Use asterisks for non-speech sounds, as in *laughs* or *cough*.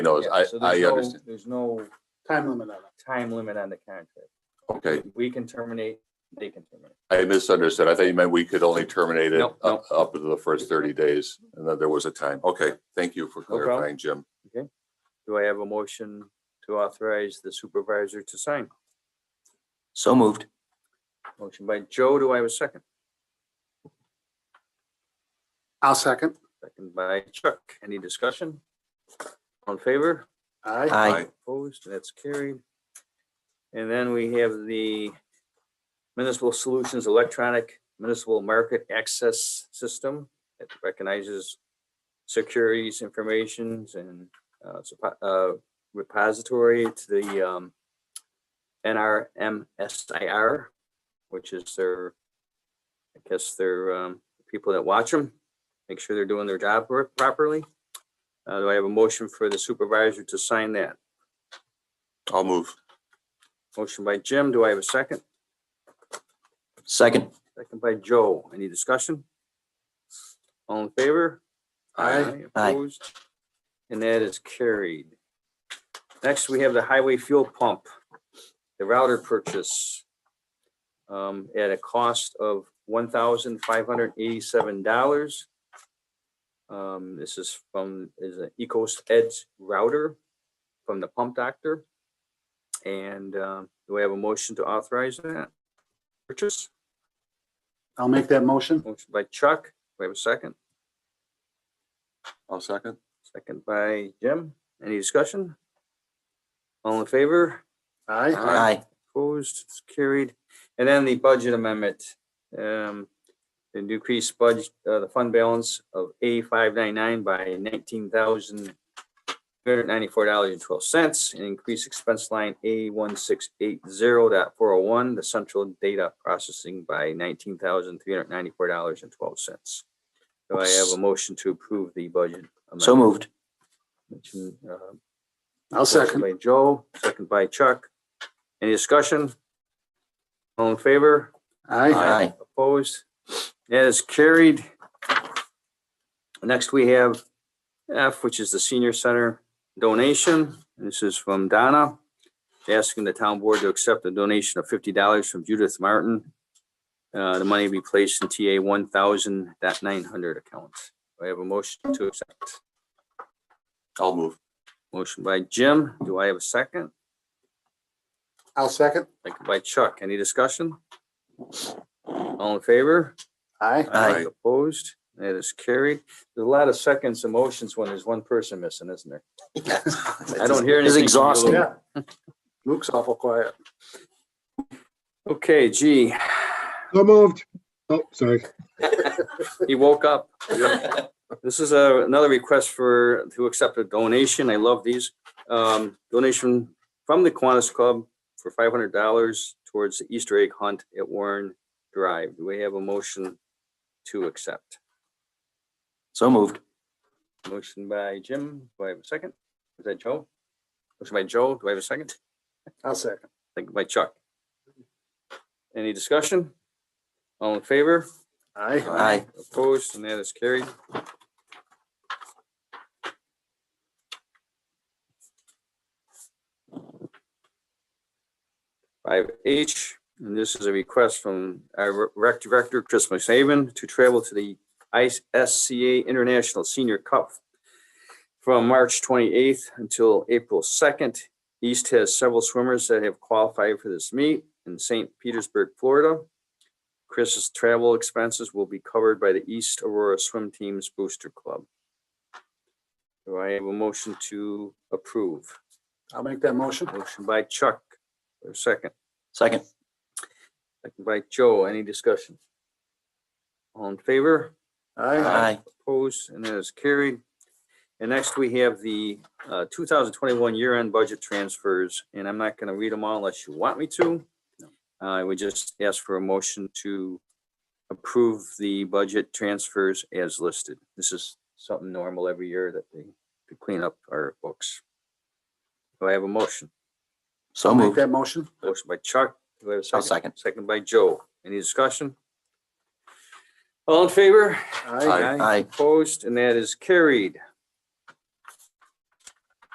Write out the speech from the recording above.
You know, Yeah, I, so there's I no- understand. There's no time limit on it. time limit on the contract. Okay, We can terminate, they can terminate. I misunderstood. I thought you meant we could only terminate it Nope, up, up to the first thirty days and that there was a time. Okay, thank you for problem. clarifying, Jim. Do I have a motion to authorize the supervisor to sign? So moved. Motion by Joe, do I have a second? I'll second. Second by Chuck, any discussion? All in favor? Aye. Aye. Opposed, that's carried. And then we have the Municipal Solutions Electronic Municipal Market Access System that recognizes securities, informations, and uh, supo- uh, repository to the um, NRMSIR, which is their, I guess their um, people that watch them, make sure they're doing their job pro- properly. Uh, Do I have a motion for the supervisor to sign that? I'll move. Motion by Jim, do I have a second? Second. Second by Joe, any discussion? All in favor? Aye. Aye. Opposed? And that is carried. Next, we have the highway fuel pump, the router purchase um, at a cost of one thousand five hundred eighty-seven dollars. Um, This is from, is an Ecos Edge router from the Pump Doctor. And um, do we have a motion to authorize that purchase? I'll make that motion. Motion by Chuck. Do I have a second? I'll second. Second by Jim. Any discussion? All in favor? Aye. Aye. Opposed? It's carried. And then the budget amendment. um, The decreased budget, uh, the fund balance of A five nine nine by nineteen thousand three hundred ninety-four dollars and twelve cents, and increase expense line A one six eight zero dot four oh one, the central data processing by nineteen thousand three hundred ninety-four dollars and twelve cents. Do I have a motion to approve the budget? So amendment? moved. Motion, uh, I'll second. Motion by Joe, second by Chuck. Any discussion? All in favor? Aye. Aye. Opposed? That is carried. Next, we have F, which is the senior center donation. This is from Donna, asking the town board to accept a donation of fifty dollars from Judith Martin. Uh, the money be placed in TA one thousand that nine hundred account. Do I have a motion to accept. I'll move. Motion by Jim. Do I have a second? I'll second. Second by Chuck. Any discussion? All in favor? Aye. Aye. Opposed? That is carried. There's a lot of seconds and motions when there's one person missing, isn't there? *laughs* I don't hear anything. It's from you, exhausting. Lou. Yeah. Luke's awful quiet. Okay, gee, So moved. Oh, sorry. he woke up. This is a, another request for, to accept a donation. I love these. Um, donation from the Kiwanis Club for five hundred dollars towards the Easter egg hunt at Warren Drive. Do we have a motion to accept? So moved. Motion by Jim, do I have a second? Is that Joe? Motion by Joe, do I have a second? I'll second. Second by Chuck. Any discussion? All in favor? Aye. Aye. Opposed, and that is carried. Five H, and this is a request from our rec director, Chris McSaven, to travel to the ISCA International Senior Cup from March twenty-eighth until April second. East has several swimmers that have qualified for this meet in St. Petersburg, Florida. Chris's travel expenses will be covered by the East Aurora Swim Team's Booster Club. Do I have a motion to approve? I'll make that motion. Motion by Chuck, or second, Second. second by Joe. Any discussion? All in favor? Aye. Aye. Opposed, and that is carried. And next, we have the uh, 2021 year-end budget transfers, and I'm not going to read them all unless you want me to. Uh, I would just ask for a motion to approve the budget transfers as listed. This is something normal every year that they to clean up our books. Do I have a motion? So I'll make moved. that motion. Motion by Chuck. Do I have a I'll second? second. Second by Joe. Any discussion? All in favor? Aye. Aye. Aye. Opposed, and that is carried.